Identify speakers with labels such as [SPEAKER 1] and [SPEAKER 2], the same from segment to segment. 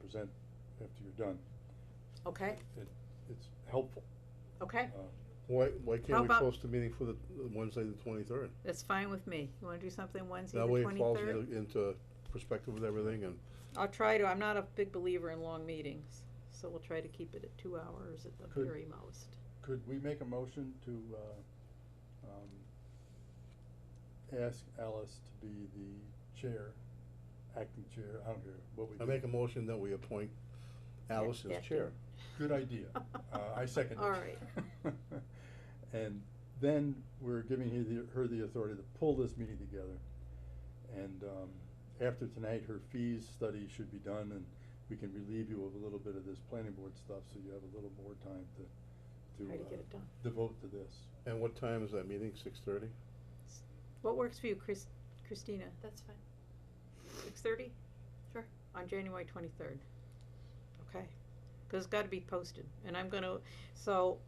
[SPEAKER 1] present after you're done.
[SPEAKER 2] Okay,
[SPEAKER 1] It, it's helpful.
[SPEAKER 2] okay,
[SPEAKER 1] Uh,
[SPEAKER 3] Why, why
[SPEAKER 2] How
[SPEAKER 3] can't we
[SPEAKER 2] about-
[SPEAKER 3] post a meeting for the the Wednesday, the twenty-third?
[SPEAKER 2] that's fine with me. You wanna do something Wednesday the
[SPEAKER 3] That way it falls
[SPEAKER 2] twenty-third?
[SPEAKER 3] into, into perspective with everything and,
[SPEAKER 2] I'll try to, I'm not a big believer in long meetings, so we'll try to keep it at two hours at the
[SPEAKER 1] Could-
[SPEAKER 2] very most.
[SPEAKER 1] Could we make a motion to, uh, um, ask Alice to be the chair, acting chair, I don't care what we
[SPEAKER 3] I
[SPEAKER 1] do.
[SPEAKER 3] make a motion that we appoint Alice
[SPEAKER 2] Yeah,
[SPEAKER 3] as chair.
[SPEAKER 1] Good idea. Uh, I second it.
[SPEAKER 2] All right.
[SPEAKER 1] And then we're giving her the, her the authority to pull this meeting together. And, um, after tonight, her fees study should be done and we can relieve you of a little bit of this planning board stuff, so you have a little more time to,
[SPEAKER 2] Try to
[SPEAKER 1] to
[SPEAKER 2] get
[SPEAKER 1] uh,
[SPEAKER 2] it done.
[SPEAKER 1] devote to this.
[SPEAKER 3] And what time is that meeting? Six-thirty?
[SPEAKER 2] What works for you, Chris, Christina?
[SPEAKER 4] That's fine.
[SPEAKER 2] Six thirty?
[SPEAKER 4] Sure.
[SPEAKER 2] On January twenty-third. Okay, cause it's gotta be posted, and I'm gonna, so,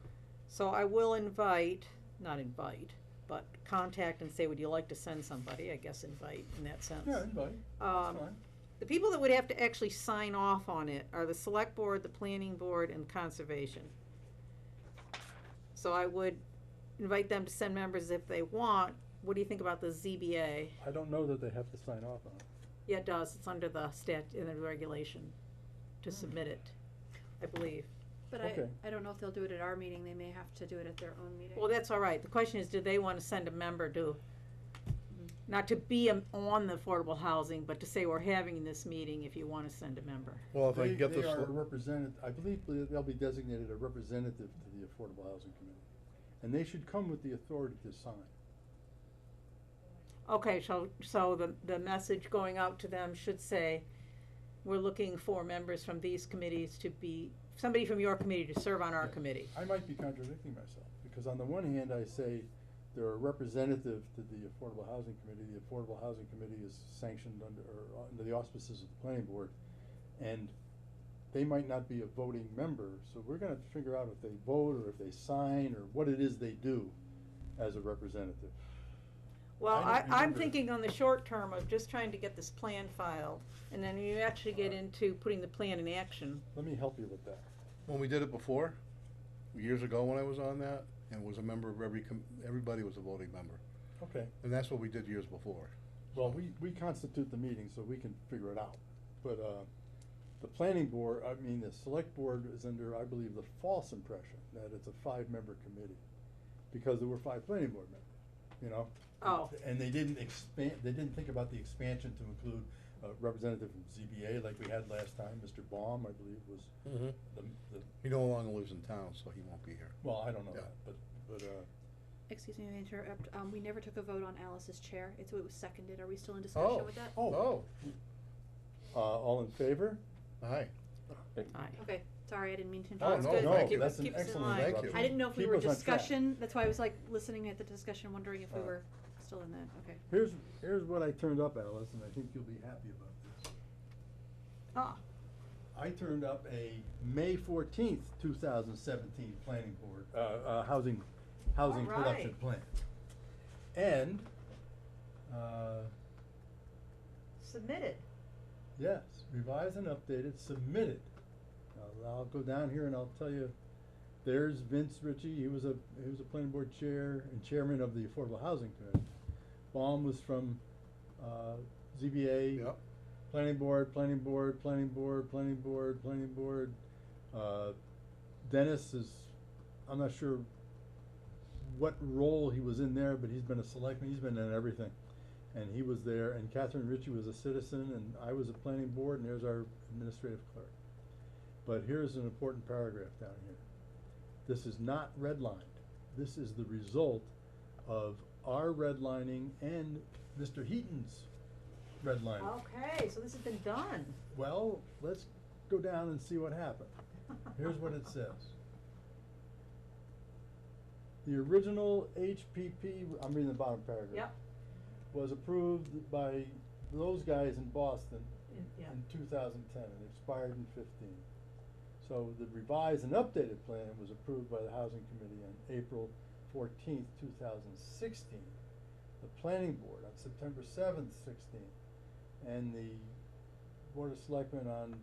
[SPEAKER 2] so I will invite, not invite, but contact and say, would you like to send somebody, I guess invite in that sense.
[SPEAKER 1] Yeah, anybody, that's
[SPEAKER 2] Um,
[SPEAKER 1] fine.
[SPEAKER 2] the people that would have to actually sign off on it are the select board, the planning board, and conservation. So I would invite them to send members if they want, what do you think about the ZBA?
[SPEAKER 1] I don't know that they have to sign off on it.
[SPEAKER 2] Yeah, it does, it's under the stat, in the regulation to submit it, I believe.
[SPEAKER 4] But
[SPEAKER 1] Okay.
[SPEAKER 4] I, I don't know if they'll do it at our meeting, they may have to do it at their own meeting.
[SPEAKER 2] Well, that's all right, the question is, do they wanna send a member to, not to be a- on the affordable housing, but to say we're having this meeting if you wanna send a member?
[SPEAKER 3] Well, if I
[SPEAKER 1] They-
[SPEAKER 3] can get this,
[SPEAKER 1] They are
[SPEAKER 3] l-
[SPEAKER 1] represented, I believe they'll be designated a representative to the Affordable Housing Committee. And they should come with the authority to sign.
[SPEAKER 2] Okay, so, so the, the message going out to them should say, we're looking for members from these committees to be, somebody from your committee to serve on our
[SPEAKER 1] Yeah.
[SPEAKER 2] committee.
[SPEAKER 1] I might be contradicting myself, because on the one hand, I say they're a representative to the Affordable Housing Committee. The Affordable Housing Committee is sanctioned under, or under the auspices of the planning board. And they might not be a voting member, so we're gonna have to figure out if they vote, or if they sign, or what it is they do as a representative.
[SPEAKER 2] Well,
[SPEAKER 1] I
[SPEAKER 2] I,
[SPEAKER 1] don't
[SPEAKER 2] I'm
[SPEAKER 1] remember.
[SPEAKER 2] thinking on the short term of just trying to get this plan filed, and then you actually get
[SPEAKER 1] Alright.
[SPEAKER 2] into putting the plan in action.
[SPEAKER 1] Let me help you with that.
[SPEAKER 3] when we did it before, years ago when I was on that, and was a member of every, com- everybody was a voting member.
[SPEAKER 1] Okay.
[SPEAKER 3] And that's what we did years before.
[SPEAKER 1] Well, we, we constitute the meeting, so we can figure it out. But, uh, the planning board, I mean, the select board is under, I believe, the false impression that it's a five-member committee. Because there were five planning board members, you know?
[SPEAKER 2] Oh.
[SPEAKER 1] And they didn't expand, they didn't think about the expansion to include a representative from ZBA like we had last time. Mr. Baum, I believe, was
[SPEAKER 3] Mm-hmm.
[SPEAKER 1] the, the,
[SPEAKER 3] He no longer lives in town, so he won't be here.
[SPEAKER 1] well, I don't know
[SPEAKER 3] Yeah.
[SPEAKER 1] that, but, but, uh,
[SPEAKER 4] Excuse me, I interrupt, um, we never took a vote on Alice's chair, it's, it was seconded, are we still in discussion with that?
[SPEAKER 3] Oh,
[SPEAKER 1] uh, all in favor?
[SPEAKER 3] oh, hi.
[SPEAKER 2] Alright.
[SPEAKER 4] Okay, sorry, I didn't mean to
[SPEAKER 3] Oh,
[SPEAKER 4] interrupt.
[SPEAKER 3] no,
[SPEAKER 2] good.
[SPEAKER 1] no,
[SPEAKER 2] Keep-
[SPEAKER 1] that's an
[SPEAKER 2] keep us in
[SPEAKER 1] excellent
[SPEAKER 2] line.
[SPEAKER 3] Thank you.
[SPEAKER 1] interruption.
[SPEAKER 4] I didn't know if we
[SPEAKER 1] Keep
[SPEAKER 4] were
[SPEAKER 1] us on track.
[SPEAKER 4] discussion, that's why I was like listening at the discussion, wondering if we
[SPEAKER 1] Uh,
[SPEAKER 4] were still in that, okay.
[SPEAKER 1] Here's, here's what I turned up, Alice, and I think you'll be happy about this.
[SPEAKER 2] Ah,
[SPEAKER 1] I turned up a May fourteenth, two thousand seventeen planning board, uh, uh, housing, housing
[SPEAKER 2] All right.
[SPEAKER 1] production plan. And, uh,
[SPEAKER 2] submitted.
[SPEAKER 1] yes, revised and updated, submitted. I'll, I'll go down here and I'll tell you, there's Vince Ritchie, he was a, he was a planning board chair and chairman of the Affordable Housing Committee. Baum was from, uh, ZBA.
[SPEAKER 3] Yep.
[SPEAKER 1] Planning board, planning board, planning board, planning board, planning board. Uh, Dennis is, I'm not sure what role he was in there, but he's been a selectman, he's been in everything. And he was there, and Catherine Ritchie was a citizen, and I was a planning board, and there's our administrative clerk. But here's an important paragraph down here. This is not redlined. This is the result of our redlining and Mr. Heaton's redlining.
[SPEAKER 2] Oh. Okay, so this has been done.
[SPEAKER 1] Well, let's go down and see what happened. Here's what it says. The original HPP, I'm reading the bottom paragraph.
[SPEAKER 2] Yep.
[SPEAKER 1] Was approved by those guys in Boston
[SPEAKER 2] In- yeah.
[SPEAKER 1] in two thousand ten and expired in fifteen. So the revised and updated plan was approved by the Housing Committee on April fourteenth, two thousand sixteen. The Planning Board on September seventh, sixteen, and the Board of Selectmen on